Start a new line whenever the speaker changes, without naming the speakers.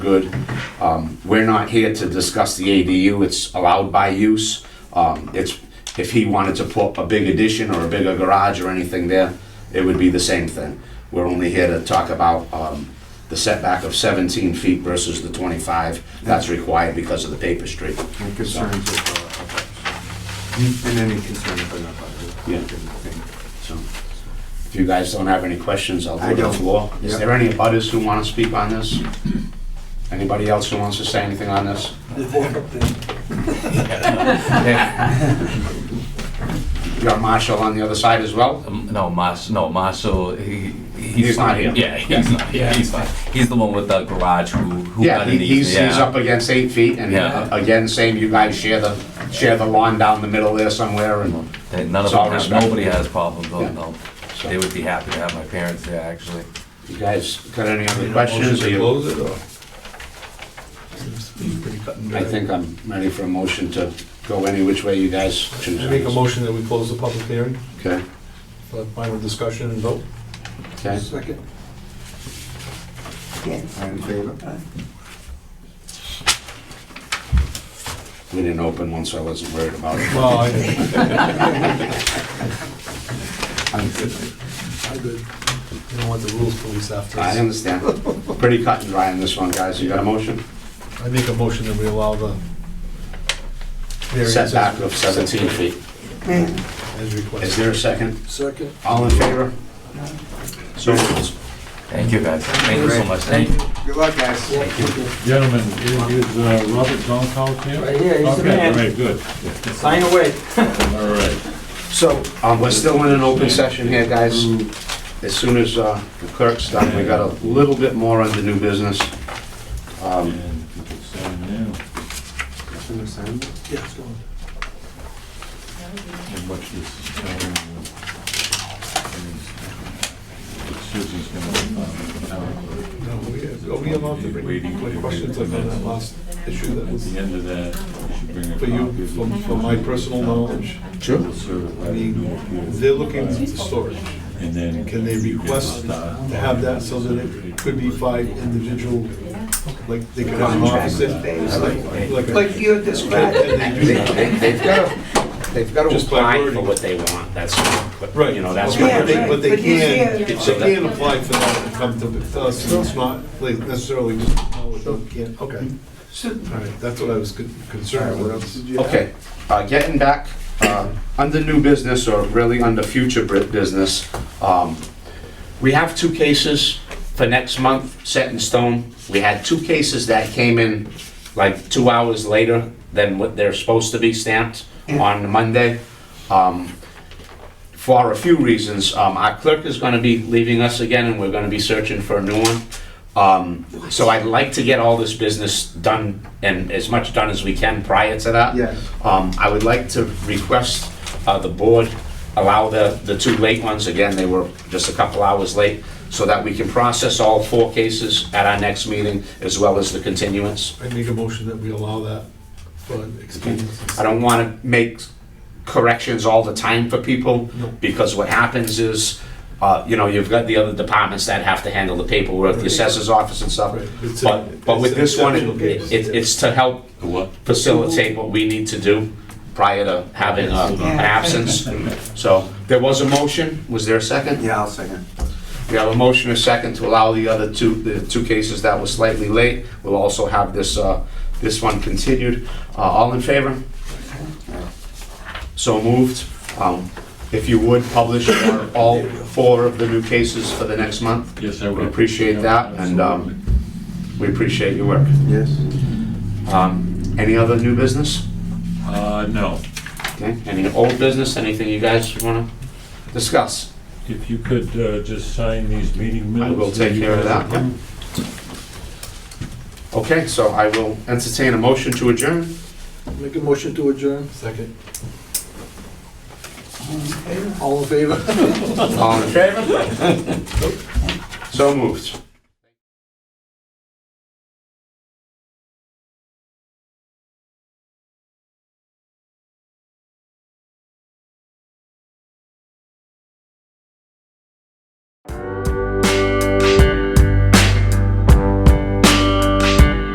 good. Um, We're not here to discuss the ADU, it's allowed by use. Um, It's, if he wanted to put a big addition or a bigger garage or anything there, it would be the same thing. We're only here to talk about um, the setback of 17 feet versus the 25 that's required because of the paper street.
And concerns uh, of, uh, and any concern about that.
Yeah. So, If you guys don't have any questions, I'll go
I
to the
don't.
floor. Is
Yeah.
there any others who want to speak on this? Anybody else who wants to say anything on this? You got Marshall on the other side as well?
Um, No, Mars, no, Marshall, he, he's,
He's not here.
Yeah, he's not here. He's not. He's the one with the garage who, who
Yeah,
got
he-
in these,
he's, he's
yeah.
up against eight feet, and
Yeah.
uh, again, same, you guys share the, share the lawn down the middle there somewhere, and
That None of
It's all
them, have-
respect.
nobody has problems, though,
Yeah.
no.
So-
They would be happy to have my parents there, actually.
you guys got any other
Motion
questions? Are
to
you-
close it, or? Seems to be pretty cut and dry.
I think I'm ready for a motion to go any which way you guys choose.
I make a motion that we close the public hearing,
Okay,
for final discussion and vote.
okay.
Second. All in favor?
We didn't open one, so I wasn't worried about it.
Well, I, I did. You don't want the rules police after
I
us.
understand. Pretty cut and dry on this one, guys. You got a motion?
I make a motion that we allow the variances
Setback of 17 feet.
As
Is
requested.
there a second?
Second.
All in favor? So,
Thank you, guys. Thank you so much. Thank you.
Good luck, guys.
Gentlemen, is is, uh, Robert Donkow here?
Right here, he's the
Okay,
man.
all right, good,
Sign away.
all right.
So, um, we're still in an open session here, guys. As soon as, uh, the clerk's done, we got a little bit more under new business. Um,
And you can sign now.
Yes, go on.
And watch this, um, Susan's gonna, uh, um,
No, we- Are we allowed to bring any questions like on that last issue that
at
was
the end of that, you should bring a
for you,
copy.
for for my personal knowledge?
Sure.
I mean, they're looking for storage.
And then.
Can they request uh, to have that so that it could be five individual, like, they could have an office in, it's like, like
Like
a-
you had described.
Can they do
They,
that?
they- they've gotta, they've gotta
Just by
apply for
wording.
what they want, that's, what-
Right.
you know, that's
Okay,
what
But they,
they
but they
But you
can, they
can't-
can apply for that and come to to us, and it's not like necessarily just, oh, we can't, okay. All right, that's what I was con- concerned with.
Okay, uh, getting back, uh, under new business or really under future bri- business, um, we have two cases for next month set in stone. We had two cases that came in like two hours later than what they're supposed to be stamped on Monday. Um, for a few reasons. Um, our clerk is gonna be leaving us again, and we're gonna be searching for a new one. Um, so I'd like to get all this business done and as much done as we can prior to that.
Yes.
Um, I would like to request, uh, the board allow the, the two late ones, again, they were just a couple hours late, so that we can process all four cases at our next meeting, as well as the continuance.
I make a motion that we allow that for expediency.
I don't want to make corrections all the time for people,
No.
because what happens is, uh, you know, you've got the other departments that have to handle the paperwork, the
Right.
assessor's office and stuff.
Right. It's a-
But, but with
it's an
this one,
exceptional
it-
case.
it's, it's to help facilitate what we need to do prior to having a- an absence. So, there was a motion, was there a second?
Yeah, I'll second.
We have a motion and a second to allow the other two, the two cases that were slightly late. We'll also have this, uh, this one continued. Uh, All in favor? So moved. Um, If you would, publish our- all four of the new cases for the next month.
Yes, I will.
We appreciate that, and um, we appreciate your work.
Yes.
Um, Any other new business?
Uh, no,
Okay, any old business, anything you guys want to discuss?
if you could, uh, just sign these meeting
I
minutes.
will take care of that. yeah. Okay, so I will entertain a motion to adjourn.
Make a motion to adjourn.
Second.
All in favor?
All in favor? So moved.